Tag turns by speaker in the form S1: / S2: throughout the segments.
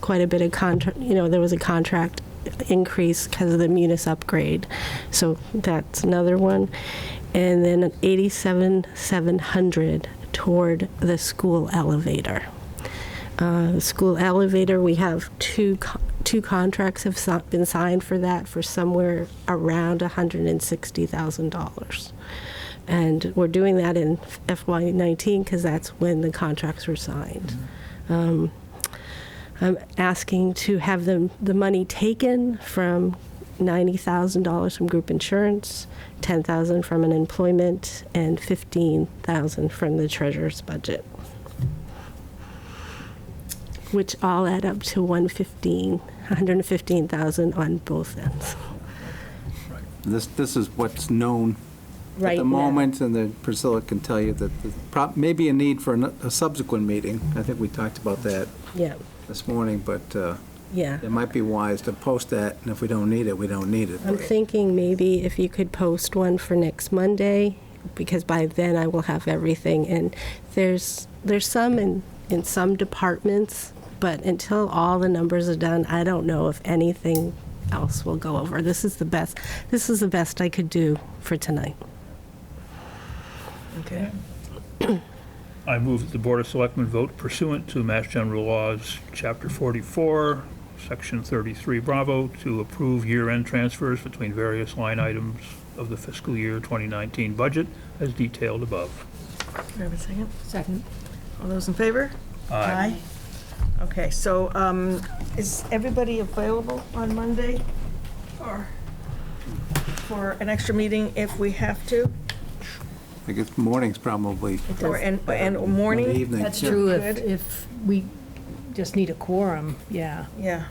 S1: quite a bit of contract, you know, there was a contract increase because of the Munis upgrade. So that's another one. And then 87,700 toward the school elevator. Uh, the School elevator, we have two, co- two contracts have si- been signed for that for somewhere around $160,000. And we're doing that in FY19 because that's when the contracts were signed. Um, I'm um, asking to have the, the money taken from $90,000 from group insurance, 10,000 from unemployment, and 15,000 from the treasurer's budget. Which all add up to 115, 115,000 on both ends.
S2: This, this is what's known at
S1: Right
S2: the
S1: now.
S2: moment, and then Priscilla can tell you that the prob- maybe a need for an- a subsequent meeting. I think we talked about that
S1: Yeah,
S2: this morning, but uh,
S1: yeah.
S2: it might be wise to post that, and if we don't need it, we don't need it.
S1: I'm thinking maybe if you could post one for next Monday, because by then I will have everything. And there's, there's some in, in some departments, but until all the numbers are done, I don't know if anything else will go over. This is the best, this is the best I could do for tonight.
S3: Okay.
S4: I move that the Board of Selectmen vote pursuant to Mass General Laws, Chapter 44, Section 33, Bravo, to approve year-end transfers between various line items of the fiscal year 2019 budget as detailed above.
S3: Do I have a second?
S5: Second.
S3: All those in favor?
S4: Aye.
S3: Okay, so um, is everybody available on Monday or for an extra meeting if we have to?
S2: I guess morning's probably.
S3: Or, and, and morning?
S2: Evening.
S5: That's
S2: yeah.
S5: true if,
S3: Good.
S5: if we just need a quorum, yeah.
S3: Yeah.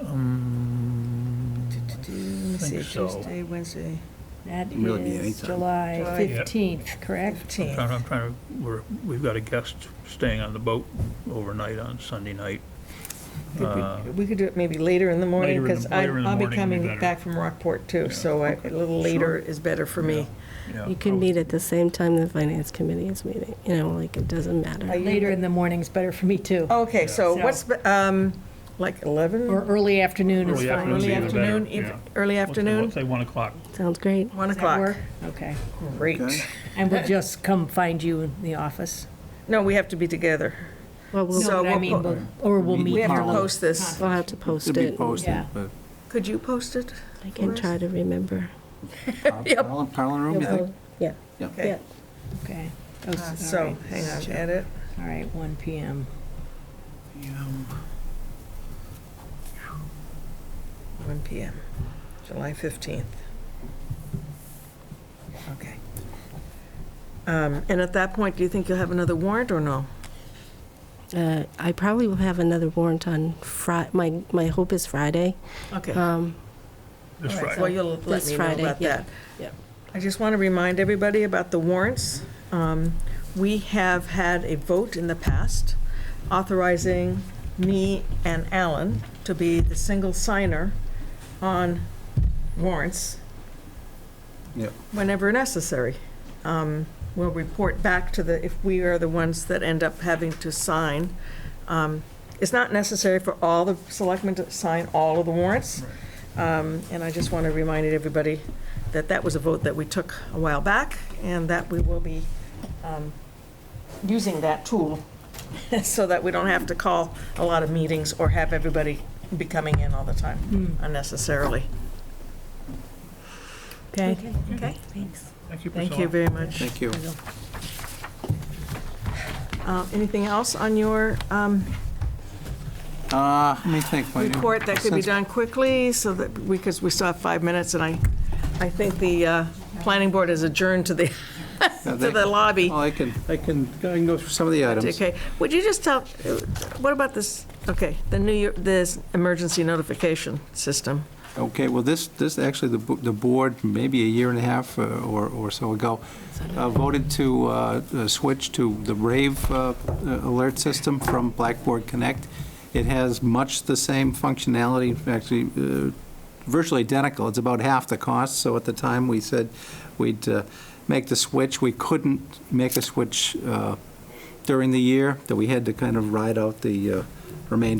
S4: Um,
S3: Let me see,
S4: think so.
S3: Tuesday, Wednesday,
S5: That
S2: Really be
S5: is
S2: anytime.
S5: July
S3: July-
S4: Yeah.
S5: 15th, correct?
S4: I'm
S3: 15th.
S4: trying- I'm trying to, we're, we've got a guest staying on the boat overnight on Sunday night. Uh,
S3: Could we- We could do it maybe later in the morning,
S4: Later in the-
S3: because
S4: later in the
S3: I'll be
S4: morning would be
S3: coming
S4: better.
S3: back from Rockport too, so I- a little later is better for me.
S4: Yeah,
S1: You can meet at the same time the finance committee is meeting, you know, like it doesn't
S3: Are
S1: matter.
S3: you-
S5: Later in the morning's better for me too.
S3: Okay, so
S5: So-
S3: what's, be- um, like 11?
S5: Or early afternoon is
S4: Early
S5: fine.
S4: afternoon's
S3: Early
S4: even better,
S3: afternoon, eve-
S4: yeah.
S3: early
S4: Let's-
S3: afternoon,
S4: Let's say 1 o'clock.
S1: Sounds great.
S3: 1
S5: Does that
S3: o'clock.
S5: work? Okay.
S3: Great.
S2: Okay.
S5: And we'll just come find you in the office?
S3: No, we have to be together.
S1: Well, we'll,
S3: So
S5: No, but I
S3: we'll
S5: mean,
S3: po-
S5: we'll- Or we'll meet.
S3: We have to
S5: Carla.
S3: post this.
S1: we'll have to post
S2: It'll be
S1: it.
S2: posted,
S5: Yeah.
S2: but
S3: Could you post it?
S1: I can try to remember.
S2: Parlor Parlor room, you think?
S1: Yeah, yeah.
S5: Okay.
S3: Uh,
S5: Oh, s- all
S3: So,
S5: right,
S3: hang on,
S5: sure.
S3: edit.
S5: All right, 1 PM.
S3: One PM, July 15th. Okay. Um, And at that point, do you think you'll have another warrant or no?
S1: Uh, I probably will have another warrant on Fri, my, my hope is Friday.
S3: Okay.
S1: Um,
S4: This
S3: All right,
S4: Friday.
S3: Well, you'll let
S1: This
S3: me know
S1: Friday,
S3: about
S1: yeah,
S3: that.
S1: yeah.
S3: I just want to remind everybody about the warrants. Um, We have had a vote in the past authorizing me and Alan to be the single signer on warrants
S2: Yep.
S3: whenever necessary. Um, We'll report back to the, if we are the ones that end up having to sign. Um, It's not necessary for all the selectmen to sign all of the warrants. Um, And I just want to remind everybody that that was a vote that we took a while back, and that we will be um, using that tool so that we don't have to call a lot of meetings or have everybody be coming in all the time unnecessarily. Okay? Okay.
S1: Thanks.
S4: Thank you,
S3: Thank you
S4: Priscilla.
S3: very much.
S2: Thank you.
S3: Uh, Anything else on your um,
S2: Uh, Let me think. my new-
S3: report that could be
S2: since-
S3: done quickly, so that, because we still have five minutes, and I, I think the uh, planning board is adjourned to the,
S2: No,
S3: to
S2: they-
S3: the lobby.
S2: Oh, I can, I can, I can go through some of the items.
S3: Okay, would you just tell, what about this, okay, the new, year- this emergency notification system?
S2: Okay, well, this, this, actually, the, bo- the board, maybe a year and a half uh, or, or so ago, uh, voted to uh, uh, switch to the Rave uh, alert system from Blackboard Connect. It has much the same functionality, actually uh, virtually identical. It's about half the cost, so at the time, we said we'd uh, make the switch. We couldn't make a switch uh, during the year, that we had to kind of ride out the uh, remainder